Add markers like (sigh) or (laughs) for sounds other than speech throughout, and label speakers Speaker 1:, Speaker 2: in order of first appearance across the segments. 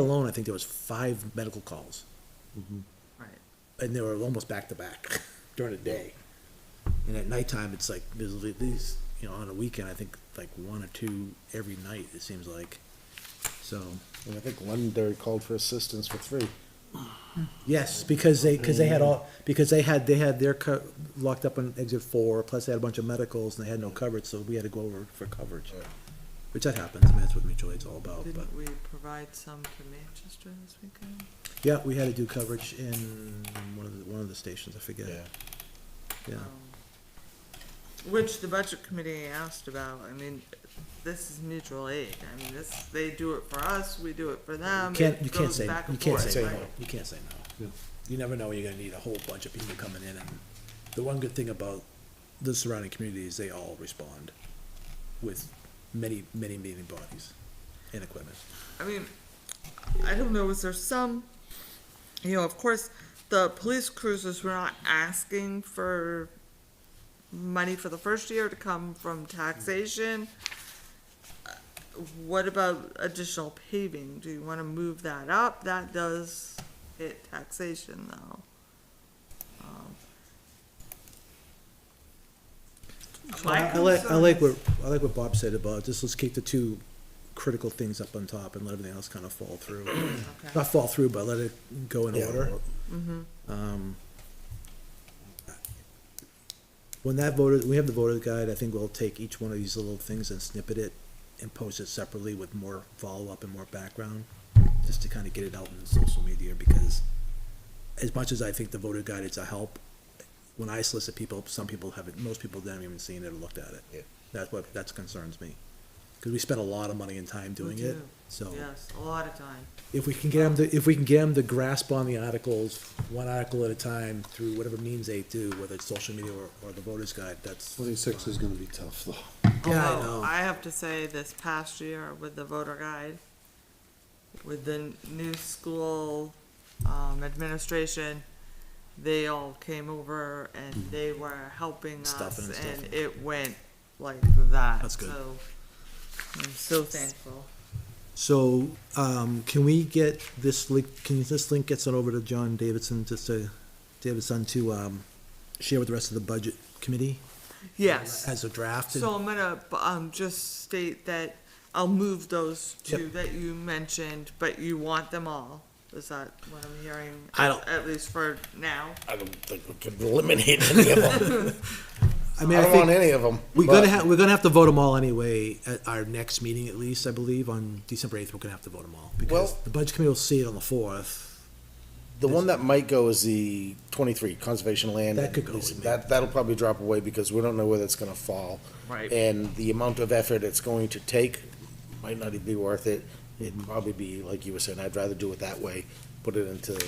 Speaker 1: alone, I think there was five medical calls,
Speaker 2: Right.
Speaker 1: and they were almost back to back (laughs) during the day. And at nighttime, it's like, there's at least, you know, on a weekend, I think like one or two every night, it seems like. So,
Speaker 3: And I think Londonderry called for assistance for three.
Speaker 1: yes, because they, because they had all, because they had, they had their co- locked up on exit four, plus they had a bunch of medicals and they had no coverage, so we had to go over for coverage. Which that happens, I mean, that's what mutual aid's all about, Oh, but,
Speaker 2: Didn't we provide some to Manchester this weekend?
Speaker 1: yeah, we had to do coverage in one of the, one of the stations, I forget. Yeah,
Speaker 2: Um, Which the budget committee asked about, I mean, this is mutual aid, I mean, this, they do it for us, we do it for them.
Speaker 1: Can't,
Speaker 2: it
Speaker 1: you can't
Speaker 2: goes
Speaker 1: say,
Speaker 2: back
Speaker 1: you
Speaker 2: and
Speaker 1: can't
Speaker 2: forth,
Speaker 1: say no,
Speaker 2: right?
Speaker 1: you can't say no. You never know, you're gonna need a whole bunch of people coming in, and the one good thing about the surrounding community is they all respond with many, many meeting bodies and equipment.
Speaker 2: I mean, I don't know, is there some, you know, of course, the police cruisers were not asking for money for the first year to come from taxation. Uh, What about additional paving? Do you wanna move that up? That does hit taxation though. Um,
Speaker 1: So
Speaker 2: My
Speaker 1: I I like, I
Speaker 2: concern
Speaker 1: like
Speaker 2: is-
Speaker 1: what, I like what Bob said about, just let's keep the two critical things up on top and let everything else kind of fall through.
Speaker 2: Okay.
Speaker 1: Not fall through, but let it go in
Speaker 3: Yeah.
Speaker 1: order. Um, When that voter, we have the voter guide, I think we'll take each one of these little things and snippet it and post it separately with more follow-up and more background, just to kind of get it out in social media, because as much as I think the voter guide is a help, when I solicit people, some people haven't, most people haven't even seen it or looked at it.
Speaker 3: Yeah.
Speaker 1: That's what, that concerns me, because we spend a lot of money and time doing it,
Speaker 2: do,
Speaker 1: so
Speaker 2: Yes, a lot of time.
Speaker 1: if we can get them to, if we can get them to grasp on the articles, one article at a time, through whatever means they do, whether it's social media or, or the voters guide, that's.
Speaker 3: Twenty-six is gonna be tough though.
Speaker 1: Yeah, I
Speaker 2: Although,
Speaker 1: know.
Speaker 2: I have to say, this past year with the voter guide, with the new school, um, administration, they all came over and they were helping
Speaker 1: Hmm. Stuffing
Speaker 2: us
Speaker 1: and stuffing.
Speaker 2: and it went like that,
Speaker 1: That's good.
Speaker 2: so. I'm so thankful.
Speaker 1: So, um, can we get this link, can this link get sent over to John Davidson, just to, Davidson to, um, share with the rest of the budget committee?
Speaker 2: Yes,
Speaker 1: As a draft? and-
Speaker 2: so I'm gonna, um, just state that I'll move those two
Speaker 1: Yep.
Speaker 2: that you mentioned, but you want them all. Is that what I'm hearing?
Speaker 1: I don't-
Speaker 2: At least for now.
Speaker 3: I don't think we could eliminate
Speaker 1: (laughs)
Speaker 3: any of them.
Speaker 1: I
Speaker 3: I
Speaker 1: mean, I
Speaker 3: don't want
Speaker 1: think,
Speaker 3: any of them.
Speaker 1: we're gonna have, we're gonna have to vote them all anyway, at our next meeting at least, I believe, on December eighth, we're gonna have to vote them all. Because
Speaker 3: Well-
Speaker 1: the budget committee will see it on the fourth.
Speaker 3: The one that might go is the twenty-three, conservation land.
Speaker 1: That could go
Speaker 3: It's-
Speaker 1: with me.
Speaker 3: That, that'll probably drop away because we don't know where that's gonna fall.
Speaker 2: Right.
Speaker 3: And the amount of effort it's going to take might not even be worth it.
Speaker 1: Mm-hmm.
Speaker 3: It'd probably be, like you were saying, I'd rather do it that way, put it into the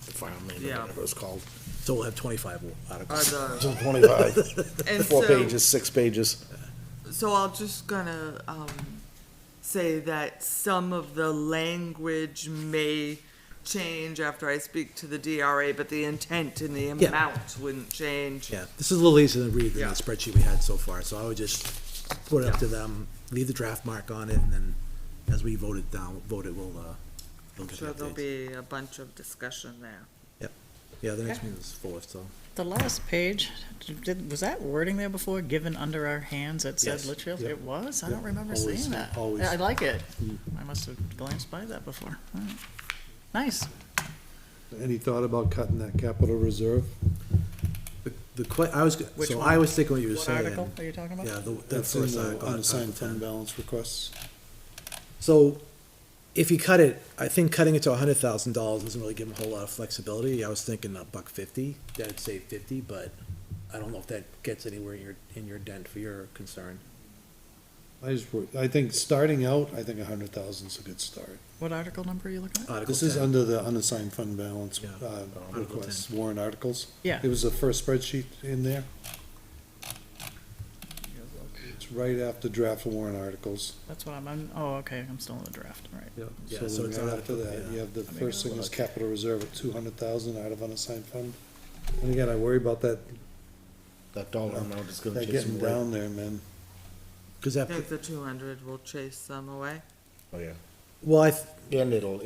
Speaker 3: farmland or
Speaker 2: Yeah.
Speaker 3: whatever it's called.
Speaker 1: So we'll have twenty-five articles.
Speaker 2: Are the
Speaker 3: So (laughs)
Speaker 2: (laughs)
Speaker 3: Twenty-five,
Speaker 2: And
Speaker 3: four
Speaker 2: so-
Speaker 3: pages, six pages.
Speaker 2: So I'll just gonna, um, say that some of the language may change after I speak to the DRA, but the intent and the
Speaker 1: Yeah.
Speaker 2: amount wouldn't change.
Speaker 1: Yeah, this is a little easier to read than
Speaker 2: Yeah.
Speaker 1: the spreadsheet we had so far, so I would just put it up to them, leave the draft mark on it, and then as we vote it down, vote it, we'll, uh, we'll get the
Speaker 2: So there'll
Speaker 1: updates.
Speaker 2: be a bunch of discussion there.
Speaker 1: Yeah, the next
Speaker 4: Okay.
Speaker 1: meeting is fourth, so,
Speaker 4: The last page, did, was that wording there before, given under our hands, that said
Speaker 1: Yes.
Speaker 4: Litchfield?
Speaker 1: Yep.
Speaker 4: It was? I
Speaker 1: Yep.
Speaker 4: don't remember
Speaker 1: Always,
Speaker 4: seeing that.
Speaker 1: always. Mm.
Speaker 4: Yeah, I like it. I must have glanced by that before. All right. Nice.
Speaker 5: Any thought about cutting that capital reserve?
Speaker 1: the, the que, I was,
Speaker 4: Which
Speaker 1: so
Speaker 4: one?
Speaker 1: I was thinking what you were
Speaker 4: What
Speaker 1: saying.
Speaker 4: article are you talking
Speaker 1: Yeah,
Speaker 4: about?
Speaker 1: the, the
Speaker 5: That's in
Speaker 1: first
Speaker 5: the
Speaker 1: article.
Speaker 5: unassigned
Speaker 1: Article
Speaker 5: fund
Speaker 1: 10.
Speaker 5: balance requests.
Speaker 1: So, if you cut it, I think cutting it to a hundred thousand dollars doesn't really give them a whole lot of flexibility, I was thinking a buck fifty, that'd save fifty, but I don't know if that gets anywhere in your, in your dent for your concern.
Speaker 5: I just, wrote- I think, starting out, I think a hundred thousand's a good start.
Speaker 4: What article number are you looking at?
Speaker 1: Article
Speaker 5: This is
Speaker 1: 10.
Speaker 5: under the unassigned fund balance,
Speaker 1: Yeah.
Speaker 5: uh,
Speaker 1: Article
Speaker 5: requests, warrant articles.
Speaker 4: Yeah.
Speaker 5: It was the first spreadsheet in there. It's right after draft warrant articles.
Speaker 4: That's what I'm, I'm, oh, okay, I'm still in the draft, all right.
Speaker 1: Yeah,
Speaker 5: So
Speaker 1: so
Speaker 5: then
Speaker 1: it's
Speaker 5: right
Speaker 1: not-
Speaker 5: after that,
Speaker 1: yeah.
Speaker 5: you have the
Speaker 4: Let me
Speaker 5: first thing
Speaker 4: look.
Speaker 5: is capital reserve at two hundred thousand out of unassigned fund. And again, I worry about that,
Speaker 3: That dollar amount is gonna
Speaker 5: that
Speaker 3: chase
Speaker 5: getting
Speaker 3: them away.
Speaker 5: down there, man.
Speaker 1: Cause
Speaker 2: I
Speaker 1: that,
Speaker 2: think the two hundred will chase them away.
Speaker 3: Oh, yeah.
Speaker 1: well, I, th-
Speaker 3: And it'll,